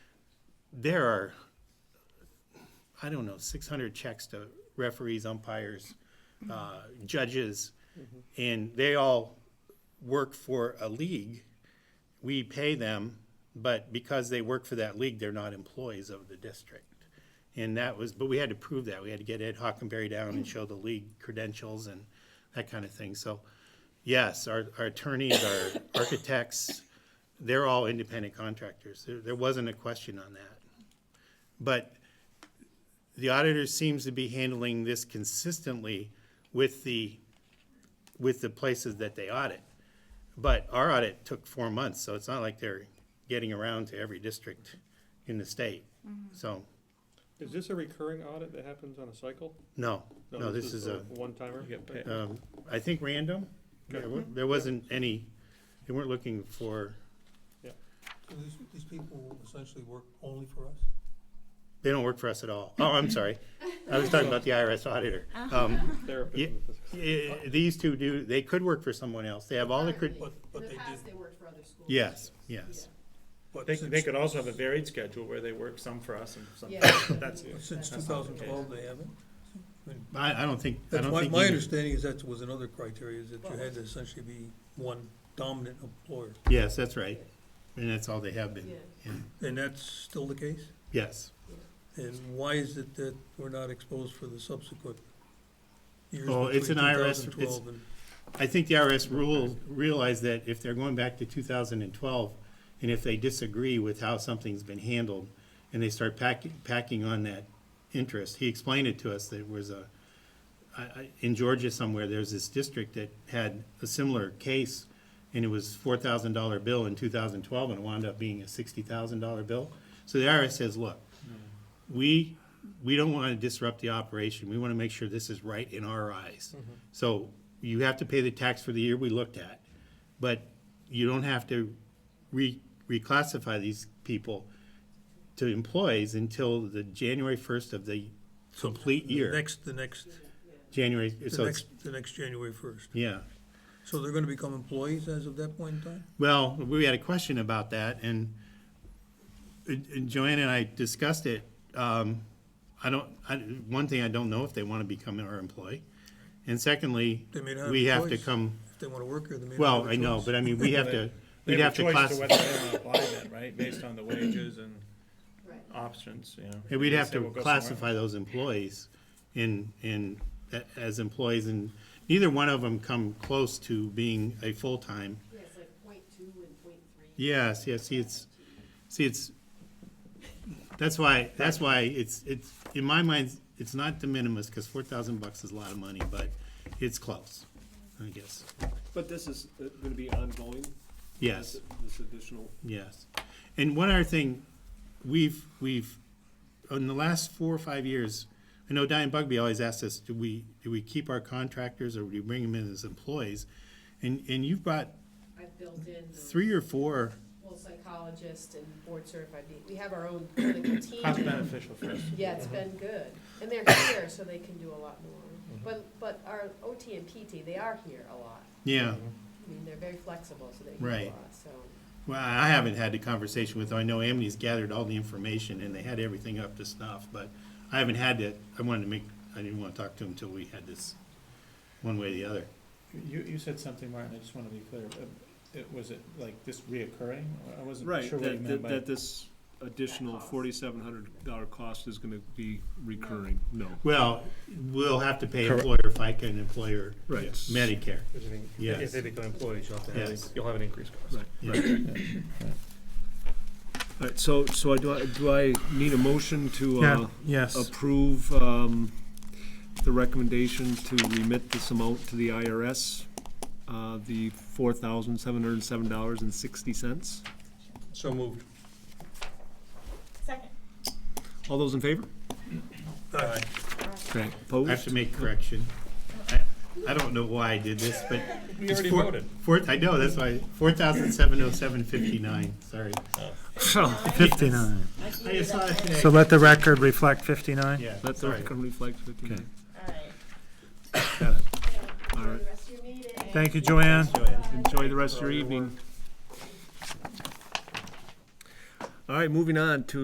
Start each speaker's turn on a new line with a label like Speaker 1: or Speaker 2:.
Speaker 1: there are, I don't know, six hundred checks to referees, umpires, uh, judges, and they all work for a league. We pay them, but because they work for that league, they're not employees of the district. And that was, but we had to prove that. We had to get Ed Hockenberry down and show the league credentials and that kind of thing. So, yes, our, our attorneys, our architects, they're all independent contractors. There, there wasn't a question on that. But the auditor seems to be handling this consistently with the, with the places that they audit. But our audit took four months, so it's not like they're getting around to every district in the state. So,
Speaker 2: Is this a recurring audit that happens on a cycle? Oh,
Speaker 1: no, no, this is a,
Speaker 2: One timer?
Speaker 3: You get paid.
Speaker 1: um, I think random. There wa- there wasn't any, they weren't looking for,
Speaker 4: So these, these people essentially work only for us?
Speaker 1: they don't work for us at all. Oh, I'm sorry. I was talking about the IRS auditor. Um,
Speaker 2: Therapist.
Speaker 1: Yeah.
Speaker 2: in the physical-
Speaker 1: Eh, These two do, they could work for someone else. They have all the, cred-
Speaker 4: But, but
Speaker 5: In
Speaker 4: they
Speaker 5: the past,
Speaker 4: did,
Speaker 5: they worked for other schools.
Speaker 1: yes, yes.
Speaker 4: but
Speaker 3: They,
Speaker 4: since.
Speaker 3: they could also have a varied schedule where they work some for us and some,
Speaker 5: Yeah.
Speaker 3: that's,
Speaker 4: Since two
Speaker 3: That's not the
Speaker 4: thousand
Speaker 3: case.
Speaker 4: twelve, they haven't?
Speaker 1: I, I don't think, I
Speaker 4: That's
Speaker 1: don't
Speaker 4: my,
Speaker 1: think.
Speaker 4: my
Speaker 1: either.
Speaker 4: understanding is that was another criteria, is that you had to essentially be one dominant employer,
Speaker 1: Yes, that's right. And that's all they have been.
Speaker 5: Yeah.
Speaker 4: and that's still the case?
Speaker 1: Yes.
Speaker 4: And why is it that we're not exposed for the subsequent years
Speaker 1: Oh,
Speaker 4: between
Speaker 1: it's
Speaker 4: two
Speaker 1: an IRS
Speaker 4: thousand twelve and?
Speaker 1: I think the IRS rule realized that if they're going back to two thousand and twelve, and if they disagree with how something's been handled, and they start packing, packing on that interest, he explained it to us that it was a, I, I, in Georgia somewhere, there's this district that had a similar case, and it was four thousand dollar bill in two thousand twelve, and it wound up being a sixty thousand dollar bill. So the IRS says, look,
Speaker 4: Mm-hmm.
Speaker 1: we, we don't want to disrupt the operation. We want to make sure this is right in our eyes.
Speaker 4: Mm-hmm.
Speaker 1: So you have to pay the tax for the year we looked at, but you don't have to re, reclassify these people to employees until the January first of the complete
Speaker 4: The
Speaker 1: year.
Speaker 4: next, the next,
Speaker 1: January,
Speaker 4: the
Speaker 1: so it's,
Speaker 4: next, the next January first.
Speaker 1: yeah.
Speaker 4: So they're gonna become employees as of that point in time?
Speaker 1: Well, we had a question about that, and uh, uh, Joanne and I discussed it. Um, I don't, I, one thing, I don't know if they want to become our employee. And secondly,
Speaker 4: They may not have
Speaker 1: we
Speaker 4: a
Speaker 1: have to
Speaker 4: choice.
Speaker 1: come,
Speaker 4: If they wanna work here, they may not have
Speaker 1: well,
Speaker 4: a
Speaker 1: I know,
Speaker 4: choice.
Speaker 1: but I mean, we have to,
Speaker 3: they
Speaker 1: we'd
Speaker 3: have
Speaker 1: have
Speaker 3: a
Speaker 1: to
Speaker 3: choice to
Speaker 1: class,
Speaker 3: whether they want to apply that, right, based on the wages and
Speaker 5: Right.
Speaker 3: options, you know.
Speaker 1: and we'd
Speaker 3: They
Speaker 1: have
Speaker 3: say
Speaker 1: to
Speaker 3: we'll go somewhere
Speaker 1: classify those employees in, in, a- as employees, and neither one of them come close to being a full-time
Speaker 5: Yeah, it's like point two and point three.
Speaker 1: Yes, yes, see, it's, see, it's, that's why, that's why it's, it's, in my mind, it's not de minimis, because four thousand bucks is a lot of money, but it's close, I guess.
Speaker 6: But this is uh, gonna be ongoing?
Speaker 1: Yes,
Speaker 6: This additional,
Speaker 1: yes. And one other thing, we've, we've, in the last four or five years, I know Diane Bugby always asks us, do we, do we keep our contractors or do we bring them in as employees? And, and you've brought
Speaker 5: I've built in the
Speaker 1: three or four,
Speaker 5: full psychologist and board certified, be- we have our own clinical team.
Speaker 3: Cost
Speaker 5: now.
Speaker 3: beneficial first.
Speaker 5: Yeah,
Speaker 4: Mm-hmm.
Speaker 5: it's been good, and they're here, so they can do a lot more.
Speaker 4: Mm-hmm.
Speaker 5: But, but our OT and PT, they are here a lot.
Speaker 1: yeah.
Speaker 5: I mean, they're very flexible, so they can do a
Speaker 1: Right.
Speaker 5: lot, so.
Speaker 1: Well, I haven't had the conversation with, them. I know Amy's gathered all the information and they had everything up to snuff, but I haven't had to, I wanted to make, I didn't want to talk to him until we had this, one way or the other.
Speaker 3: You, you said something, Martin, I just want to be clear, Uh, it, was it like this reoccurring? I wasn't
Speaker 6: right,
Speaker 3: sure what you
Speaker 6: that,
Speaker 3: meant
Speaker 6: that-
Speaker 3: by.
Speaker 6: that this additional
Speaker 5: cost.
Speaker 6: forty-seven hundred dollar cost is gonna be recurring, no.
Speaker 1: Well, we'll have to pay
Speaker 7: Correct.
Speaker 1: employer FICA and employer
Speaker 6: Right.
Speaker 1: Medicare.
Speaker 7: Because I think
Speaker 1: Yes.
Speaker 7: If they become employees, you'll have to
Speaker 1: Yes.
Speaker 7: have, you'll have an increased cost.
Speaker 6: Right.
Speaker 1: Right.
Speaker 6: All right, so, so I, do I, do I need a motion to, uh,
Speaker 3: Yes.
Speaker 6: approve, um, the recommendation to remit this amount to the IRS? Uh, the four thousand seven hundred and seven dollars and sixty cents?
Speaker 7: So moved.
Speaker 5: Second.
Speaker 6: All those in favor?
Speaker 7: Aye.
Speaker 6: Right.
Speaker 1: I have
Speaker 6: Opposed?
Speaker 1: to make correction. I- I don't know why I did this, but.
Speaker 3: We
Speaker 1: it's
Speaker 3: already
Speaker 1: four-
Speaker 3: voted.
Speaker 1: Four, I know, that's why, four thousand seven oh seven fifty-nine, sorry.
Speaker 6: Oh,
Speaker 8: Fifty-nine.
Speaker 1: I just saw it today.
Speaker 8: So let the record reflect fifty-nine.
Speaker 1: Yeah,
Speaker 6: Let the
Speaker 1: sorry.
Speaker 6: record reflect fifty-nine. All right.
Speaker 8: Thank you, Joanne.
Speaker 6: Enjoy the rest of your evening. All right, moving on to